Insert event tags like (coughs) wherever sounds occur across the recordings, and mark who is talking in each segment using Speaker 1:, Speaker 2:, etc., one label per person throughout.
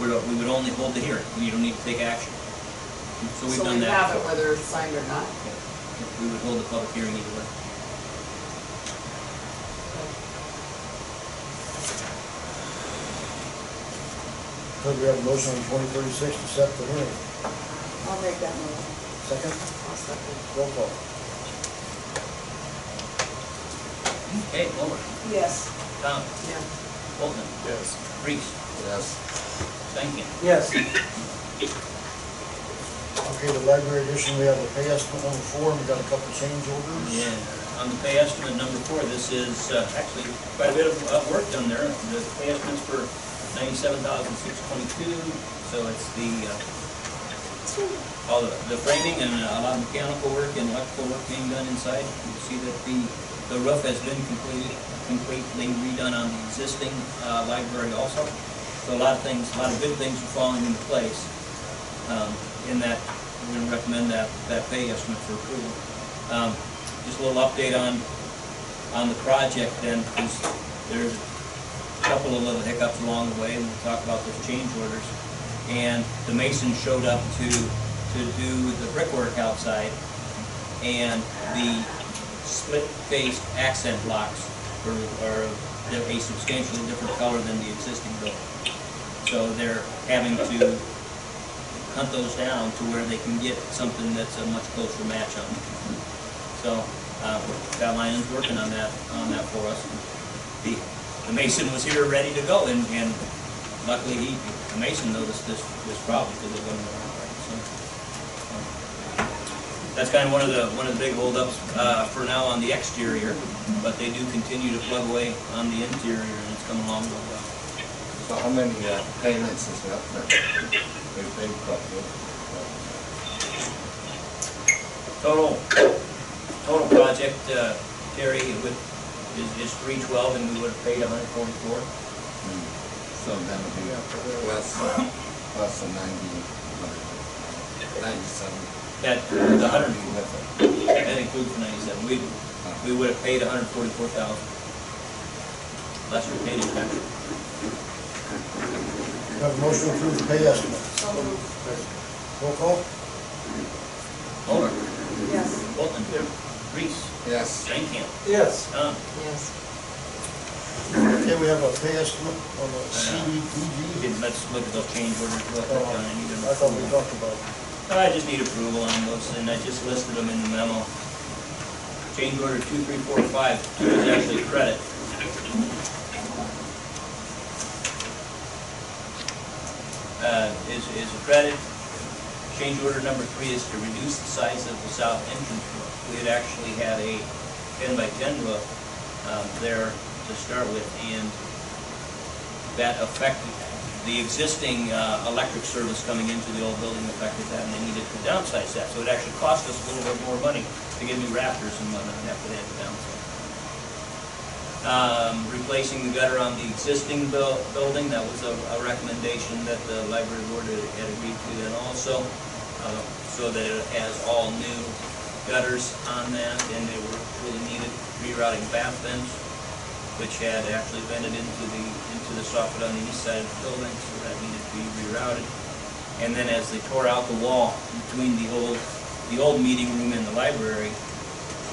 Speaker 1: we don't- we would only hold the hearing, you don't need to take action. So we've
Speaker 2: So
Speaker 1: done
Speaker 2: we
Speaker 1: that.
Speaker 2: have it whether it's signed or not.
Speaker 1: Yeah. We would hold the public hearing either way.
Speaker 3: Could we have a motion on twenty thirty-six to set the hearing?
Speaker 4: I'll make that motion.
Speaker 3: Second,
Speaker 2: I'll second.
Speaker 3: roll call.
Speaker 1: Okay, Mulder,
Speaker 4: Yes.
Speaker 1: Tom,
Speaker 2: Yeah.
Speaker 1: Bolton,
Speaker 3: Yes.
Speaker 1: Reese,
Speaker 3: Yes.
Speaker 1: Stankin.
Speaker 3: Yes. Okay, the library edition, we have a pay estimate number four, and we got a couple change orders.
Speaker 1: Yeah, on the pay estimate number four, this is uh, actually quite a bit of uh, work done there. The pay estimate's for ninety-seven thousand six twenty-two, so it's the, uh, all the the framing and a lot of mechanical work and electrical work being done inside. You can see that the, the roof has been completely, completely redone on the existing uh, library also. So a lot of things, a lot of good things are falling into place. Um, In that, we're gonna recommend that, that pay estimate for approval. Um, Just a little update on, on the project then, because there's a couple of little hiccups along the way, and we'll talk about those change orders. And the mason showed up to, to do the brickwork outside, and the split-faced accent blocks are, are a substantially different color than the existing building. So they're having to hunt those down to where they can get something that's a much closer match on. So, uh, that line is working on that, on that for us. The, the mason was here ready to go and, and luckily he, the mason noticed this, this problem because it wasn't around right, so. um, That's kind of one of the, one of the big holdups, uh, for now on the exterior, but they do continue to plug away on the interior and it's coming along real well.
Speaker 5: So how many uh, payments is left there? We've paid probably.
Speaker 1: Total, total project, uh, Terry, it would, is, is three twelve, and we would have paid hundred forty-four.
Speaker 5: So that would be plus, plus the ninety, ninety-seven.
Speaker 1: That, the hundred,
Speaker 5: Be with
Speaker 1: that includes the ninety-seven, we, we would have paid hundred forty-four thousand. Less we paid in tax.
Speaker 3: We have a motion to approve the pay estimate.
Speaker 2: So moved.
Speaker 3: Roll call?
Speaker 1: Mulder,
Speaker 4: Yes.
Speaker 1: Bolton, Reese,
Speaker 5: it. Yes,
Speaker 1: Stankin,
Speaker 3: Yes.
Speaker 1: Tom,
Speaker 2: Yes.
Speaker 3: Okay, we have a pay estimate on the CDBG.
Speaker 1: didn't, let's look at those change orders, we'll
Speaker 3: Uh,
Speaker 1: have done any of them.
Speaker 3: I thought we talked about it.
Speaker 1: I just need approval on those, and I just listed them in the memo. Change order two, three, four, five, two is actually credit. Uh, is, is a credit. Change order number three is to reduce the size of the south entrance roof. We had actually had a ten by ten roof, um, there to start with, and that affected, the existing uh, electric service coming into the old building affected that, and they needed to downsize that. So it actually cost us a little bit more money to get new rafters and whatnot after they had to downsize. Um, Replacing the gutter on the existing buil- building, that was a a recommendation that the library board had had agreed to then also, uh, so that it has all new gutters on that, and they were really needed rerouting bath vents which had actually vented into the, into the soffit on the east side of the building, so that needed to be rerouted. And then as they tore out the wall between the old, the old meeting room and the library,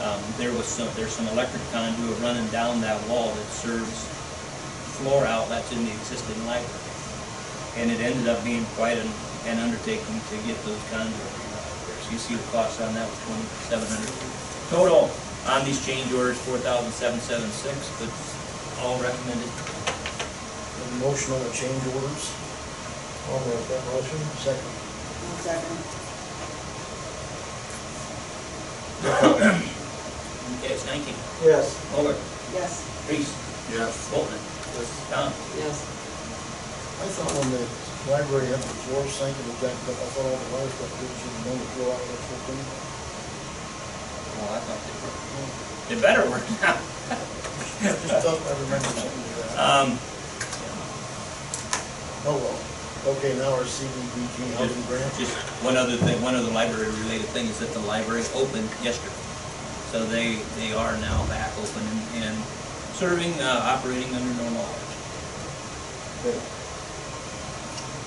Speaker 1: um, there was some, there's some electric conduit running down that wall that serves floor outlets in the existing library. And it ended up being quite an, an undertaking to get those conduit rerouted. there. So you see the cost on that was twenty-seven hundred. Total on these change orders, four thousand seven seven six, but all (coughs) recommended.
Speaker 3: A motion on the change orders. I'll make that motion. Second.
Speaker 4: One second.
Speaker 1: Okay, it's nineteen.
Speaker 3: Yes.
Speaker 1: Over.
Speaker 4: Yes.
Speaker 1: Reese,
Speaker 5: yes.
Speaker 1: Bolton, Tom.
Speaker 2: Yes.
Speaker 3: I thought when the library had the floor sank, it was jacked up, I thought all the lights got good, you know, the floor out of the thing.
Speaker 1: Well, Oh, I thought they were. They better work now.
Speaker 3: Just thought I remember something like that.
Speaker 1: Um,
Speaker 3: Oh, well, okay, now our CDBG housing grant.
Speaker 1: Just one other thing, one other library-related thing is that the library opened yesterday. So they, they are now back open and- and serving, uh, operating under normal hours.
Speaker 3: Okay.